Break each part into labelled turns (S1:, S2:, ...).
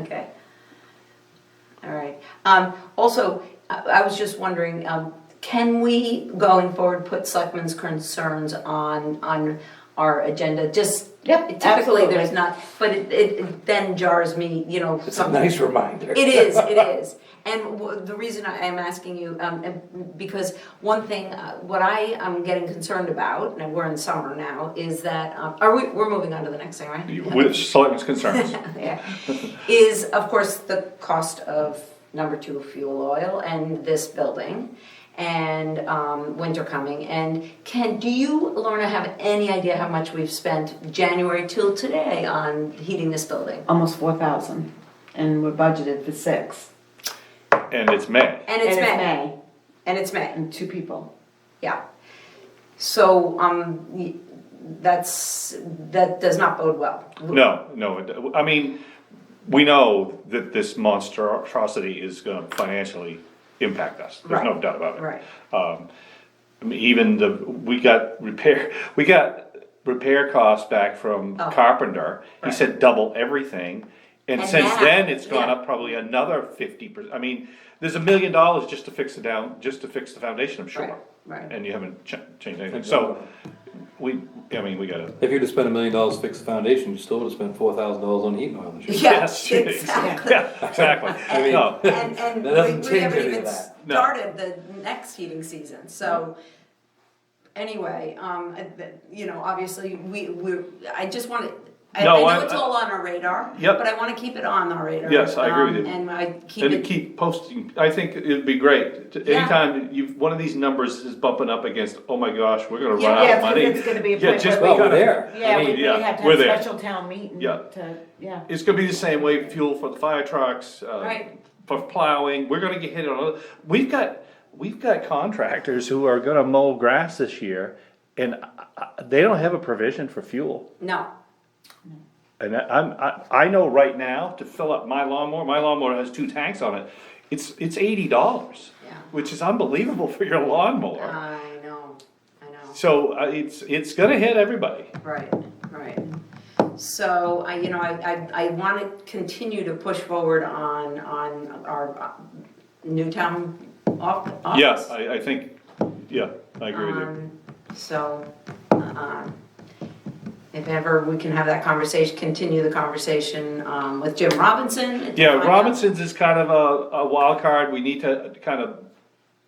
S1: Okay. All right. Um, also, I, I was just wondering, um, can we, going forward, put Selectmen's concerns on, on our agenda? Just,
S2: Yep,
S1: typically, there's
S2: absolutely.
S1: not, but it, it it then jars me, you know,
S3: It's a nice reminder.
S1: it is, it is. And w- the reason I am asking you, um, and- because one thing, uh, what I am getting concerned about, and we're in summer now, is that, um, are we, we're moving on to the next thing, right?
S4: With selectmen's concerns.
S1: Yeah, is of course the cost of number two fuel oil and this building and um, winter coming. And can, do you, Lorna, have any idea how much we've spent January till today on heating this building?
S2: Almost four thousand, and we're budgeted for six.
S4: And it's May.
S1: And it's
S2: And
S1: May. And it's May,
S2: And two people.
S1: yeah. So um, y- that's, that does not bode well.
S4: No, no, it- I mean, we know that this monstrosity is gonna financially impact us, there's no
S1: Right.
S4: doubt about it.
S1: Right.
S4: Um, I mean, even the, we got repair, we got repair costs back from
S1: Oh.
S4: Carpenter, he
S1: Right.
S4: said double everything. And
S1: And
S4: since
S1: now-
S4: then, it's gone
S1: yeah.
S4: up probably another fifty percent, I mean, there's a million dollars just to fix it down, just to fix the foundation, I'm
S1: Right,
S4: sure.
S1: right.
S4: And you haven't ch- changed anything, so, we, I mean, we gotta,
S5: If you'd have spent a million dollars to fix the foundation, you still would have spent four thousand dollars on heating oil this year.
S1: Yeah,
S4: Yes,
S1: exactly.
S4: yeah,
S5: I
S4: exactly,
S5: mean-
S4: no.
S1: And, and
S5: That doesn't
S1: we, we
S5: change
S1: haven't
S5: any of
S1: even
S5: that.
S4: No.
S1: started the next heating season, so. Anyway, um, I- th- you know, obviously, we, we're, I just wanna, I, I
S4: No,
S1: know
S4: I-
S1: it's all on our radar.
S4: Yep.
S1: But I wanna keep it on our radar.
S4: Yes, I agree
S1: um,
S4: with you.
S1: And I keep
S4: And to
S1: it,
S4: keep posting, I think it'd be great, To-
S1: Yeah.
S4: anytime you, one of these numbers is bumping up against, oh my gosh, we're gonna
S6: Yeah,
S4: run out
S6: yeah,
S4: of
S6: it's-
S4: money.
S6: it's gonna be a
S4: Yeah,
S6: point
S4: just,
S5: Well,
S4: we
S5: we're
S4: gotta,
S5: there.
S6: Yeah, we
S5: I mean,
S6: really
S4: yeah,
S6: have to
S4: we're
S6: have
S4: there.
S6: special town meeting
S4: Yeah.
S6: to, yeah.
S4: it's gonna be the same way, fuel for the fire trucks, uh,
S1: Right.
S4: for plowing, we're gonna get hit on, other- we've got, we've got contractors who are gonna mow grass this year, and I- I- they don't have a provision for fuel.
S1: no,
S4: And I- I'm, I, I know right now to fill up my lawnmower, my lawnmower has two tanks on it, it's, it's eighty dollars.
S1: Yeah.
S4: Which is unbelievable for your lawnmower.
S1: I know, I know.
S4: So uh, it's, it's gonna hit everybody.
S1: Right, right. So, I, you know, I, I, I wanna continue to push forward on, on our uh, new town off- office.
S4: Yes, I, I think, yeah, I agree with you.
S1: Um, So, um, if ever we can have that conversation, continue the conversation um, with Jim Robinson. and
S4: Yeah,
S1: find out-
S4: Robinson's is kind of a, a wild card, we need to kind of,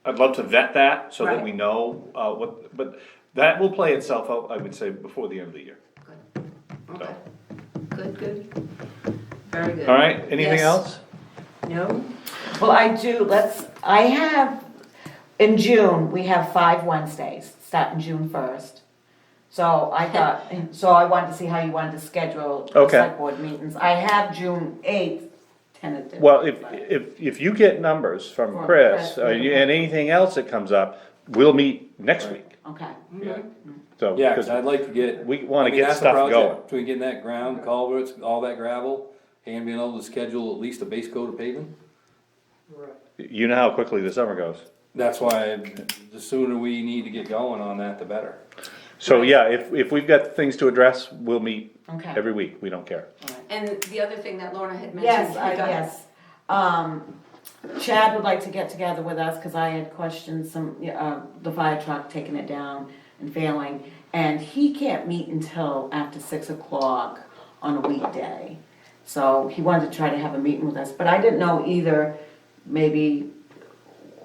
S4: I'd love to vet that so that
S1: Right.
S4: we know, uh, what, but that will play itself out, I would say, before the end of the year.
S1: Okay. Good, good. Very good.
S4: All right, anything
S1: Yes.
S4: else?
S1: No?
S6: Well, I do, let's, I have, in June, we have five Wednesdays, starting June first. So I thought, so I wanted to see how you wanted to schedule the
S4: Okay.
S6: select board meetings. I have June eighth tentative.
S4: Well, if, if, if you get numbers from
S6: From
S4: Chris,
S6: Chris,
S4: uh, you- and anything else that comes up, we'll meet next week,
S6: Okay.
S5: Yeah,
S4: so.
S5: yeah,
S4: because
S5: cause I'd like to get.
S4: We wanna
S5: I mean,
S4: get
S5: that's the
S4: stuff
S5: project,
S4: going.
S5: Between getting that ground, culverts, all that gravel, and being able to schedule at least a base coat of paving.
S4: You know how quickly the summer goes.
S5: That's why the sooner we need to get going on that, the better.
S4: So, yeah, if, if we've got things to address, we'll meet
S6: Okay.
S4: every week, we don't care.
S1: And the other thing that Lorna had mentioned.
S6: Yes, I,
S1: you got-
S6: yes. Um, Chad would like to get together with us, cause I had questioned some, uh, the fire truck taking it down and failing. And he can't meet until after six o'clock on a weekday. So he wanted to try to have a meeting with us, but I didn't know either, maybe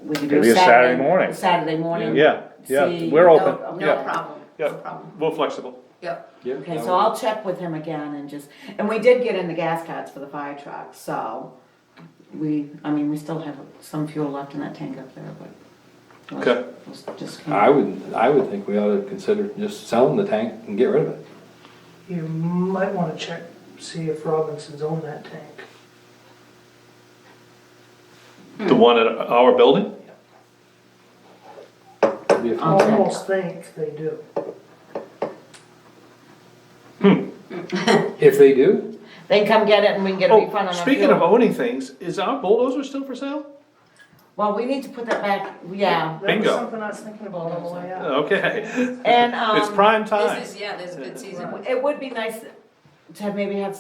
S6: we could do
S4: Maybe a
S6: a
S4: Saturday
S6: Saturday.
S4: morning.
S6: Saturday morning.
S4: Yeah, yeah,
S6: See,
S4: we're
S6: no-
S4: open,
S1: No
S4: yeah,
S1: problem, no
S4: yeah,
S1: problem.
S4: we're flexible.
S1: Yep,
S5: Yeah,
S6: Okay,
S5: that
S6: so
S5: would-
S6: I'll check with him again and just, and we did get in the gas cards for the fire truck, so we, I mean, we still have some fuel left in that tank up there, but.
S4: Okay.
S6: let's Just.
S5: I would, I would think we ought to consider just selling the tank and get rid of it.
S7: You might wanna check, see if Robinson's own that tank.
S6: Hmm.
S4: The one at our building?
S5: It'd be a few
S6: I'll
S7: I
S6: check.
S7: almost think they do.
S5: If they do,
S6: They can come get it and we can get a refund
S4: Oh,
S6: on our
S4: speaking of
S6: fuel.
S4: owning things, is our bulldozer still for sale?
S6: Well, we need to put that back, yeah,
S7: That was
S4: Bingo.
S7: something I was thinking about on the way out.
S4: Okay,
S6: and,
S4: it's
S6: Oh. um,
S4: prime time.
S1: this is, yeah, this is a good season.
S6: it would be nice to maybe have